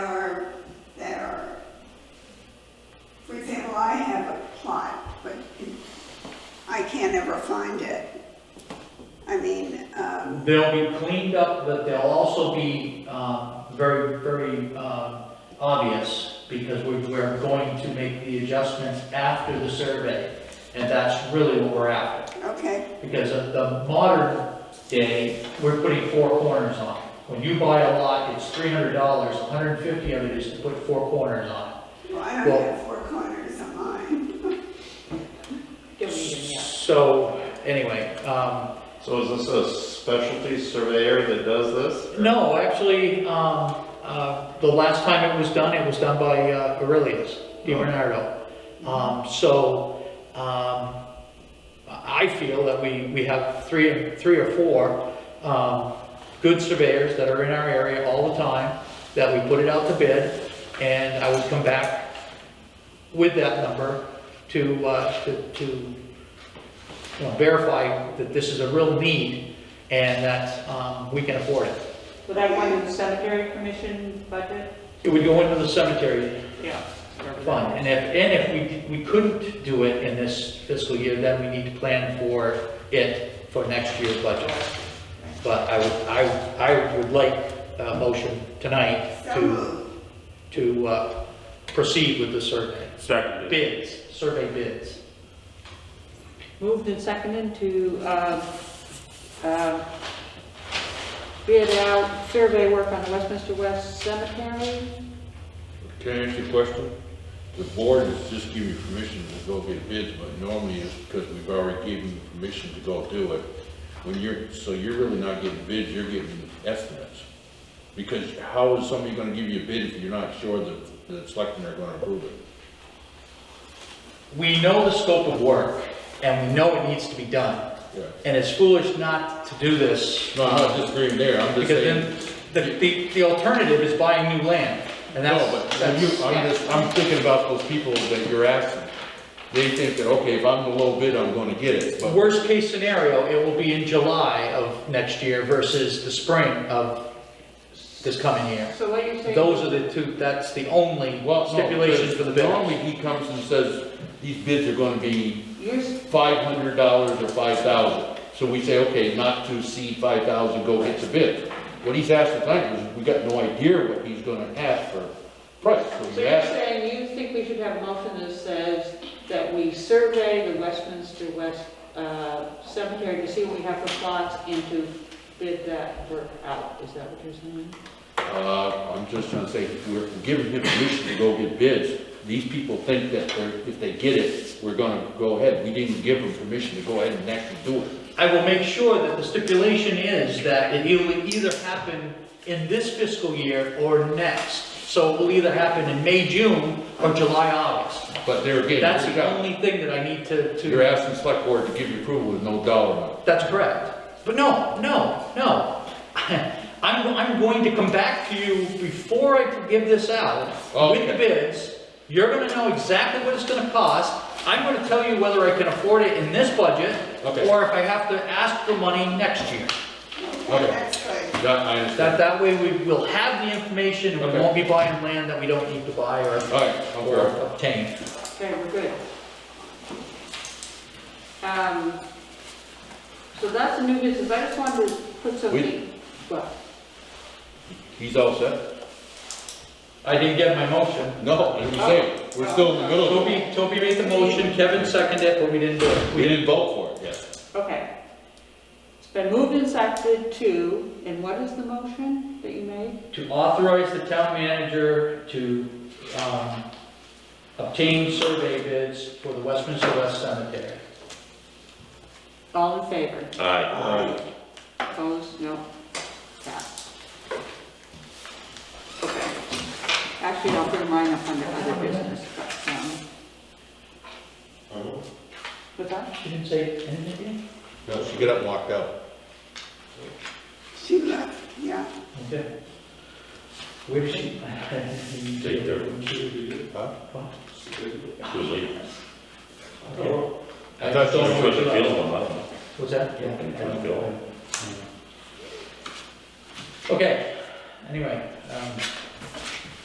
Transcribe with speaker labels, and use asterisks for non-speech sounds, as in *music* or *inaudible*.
Speaker 1: can never find it. I mean, um,
Speaker 2: They'll be cleaned up, but they'll also be uh, very, very uh, obvious because we- we're going to make the adjustments after the survey. And that's really what we're after.
Speaker 1: okay,
Speaker 2: Because of the modern day, we're putting four corners on. it. When you buy a lot, it's three hundred dollars, $150 of it is to put four corners on. it.
Speaker 1: well, I don't have four corners on mine.
Speaker 3: Don't need them yet.
Speaker 2: So, anyway, um,
Speaker 4: So is this a specialty surveyor that does this?
Speaker 2: No, actually, um, uh, the last time it was done, it was done by uh, Aurelius Di Bernardo. Um, so, um, I feel that we, we have three, three or four, um, good surveyors that are in our area all the time, that we put it out to bid, and I would come back with that number to, uh, to, to you know, verify that this is a real need and that, um, we can afford it.
Speaker 3: Would that go into the cemetery commission budget?
Speaker 2: It would go into the cemetery
Speaker 3: Yeah.
Speaker 2: fund, and if, and if we, we couldn't do it in this fiscal year, then we need to plan for it for next year's budget. But I would, I, I would like a motion tonight
Speaker 1: So
Speaker 2: to,
Speaker 1: moved.
Speaker 2: to uh, proceed with the survey.
Speaker 5: Seconded.
Speaker 2: Bids, survey bids.
Speaker 3: Moved and seconded to, um, um, bid out survey work on the Westminster West Cemetery.
Speaker 6: Can I ask you a question? The board has just given you permission to go get bids, but normally it's because we've already given you permission to go do it. When you're, so you're really not getting bids, you're getting estimates. Because how is somebody gonna give you a bid if you're not sure that the selectmen are gonna approve it?
Speaker 2: We know the scope of work, and we know it needs to be done,
Speaker 6: Yeah.
Speaker 2: and it's foolish not to do this.
Speaker 6: No, I'm not disagreeing there, I'm just
Speaker 2: Because
Speaker 6: saying.
Speaker 2: then, the, the, the alternative is buying new land, and that's.
Speaker 6: No, but when
Speaker 2: that's-
Speaker 6: you, I'm just, I'm thinking about those people that you're asking. They think that, okay, if I'm the low bid, I'm gonna get it, but.
Speaker 2: Worst case scenario, it will be in July of next year versus the spring of this coming year.
Speaker 3: So what you're saying?
Speaker 2: Those are the two, that's the only
Speaker 6: Well, no,
Speaker 2: stipulations
Speaker 6: because
Speaker 2: for the bid.
Speaker 6: Normally, he comes and says, these bids are gonna be
Speaker 3: You're, s-
Speaker 6: five hundred dollars or five thousand. So we say, okay, not to exceed five thousand, go get the bid. What he's asking tonight is, we got no idea what he's gonna ask for price, so
Speaker 3: so
Speaker 6: we
Speaker 3: you're
Speaker 6: asked.
Speaker 3: saying you think we should have a motion that says that we survey the Westminster West, uh, Cemetery to see what we have for plots and to bid that work out. Is that what you're saying?
Speaker 6: Uh, I'm just trying to say, we're giving him permission to go get bids. These people think that they're, if they get it, we're gonna go ahead. We didn't give them permission to go ahead and actually do it.
Speaker 2: I will make sure that the stipulation is that it will either happen in this fiscal year or next. So it will either happen in May, June, or July, August.
Speaker 6: But there again,
Speaker 2: That's
Speaker 6: you're
Speaker 2: the only thing that I need to, to.
Speaker 6: you're asking select board to give you approval with no dollar amount.
Speaker 2: That's correct. But no, no, no. *laughs* I'm, I'm going to come back to you before I give this out with the
Speaker 6: Okay.
Speaker 2: bids. You're gonna know exactly what it's gonna cost. I'm gonna tell you whether I can afford it in this budget
Speaker 6: Okay.
Speaker 2: or if I have to ask for money next year.
Speaker 1: Okay,
Speaker 6: Okay.
Speaker 1: that's good.
Speaker 6: Yeah, I
Speaker 2: That,
Speaker 6: understand.
Speaker 2: that way we will have the information and we
Speaker 6: Okay.
Speaker 2: won't be buying land that we don't need to buy or,
Speaker 6: All right,
Speaker 2: or
Speaker 6: okay.
Speaker 2: obtain.
Speaker 3: Okay, we're good. Um, so that's the new business, I just wanted to put something, well,
Speaker 6: He's all set?
Speaker 2: I didn't get my motion.
Speaker 6: No, as we say, we're still in the middle of it.
Speaker 2: Toby, Toby made the motion, Kevin seconded it, but we didn't do it.
Speaker 6: We didn't vote for it yet.
Speaker 3: okay. It's been moved and seconded to, and what is the motion that you made?
Speaker 2: to authorize the town manager to um, obtain survey bids for the Westminster West Cemetery.
Speaker 3: All in favor?
Speaker 5: Aye.
Speaker 3: Opposed? No? Pass. Okay. Actually, I'll put mine up under other business, but, um. What's that?
Speaker 2: She didn't say anything?
Speaker 6: No, she got up and walked out.
Speaker 1: She left, yeah.
Speaker 2: Okay. Where is she? *laughs*
Speaker 5: Take their-
Speaker 6: Huh?
Speaker 5: Too late.
Speaker 2: Okay.
Speaker 6: I thought she
Speaker 5: I'm
Speaker 6: was-
Speaker 5: sure they feel them, I don't know.
Speaker 2: What's that? Yeah.
Speaker 5: I'm trying to feel them.
Speaker 2: Okay, anyway, um,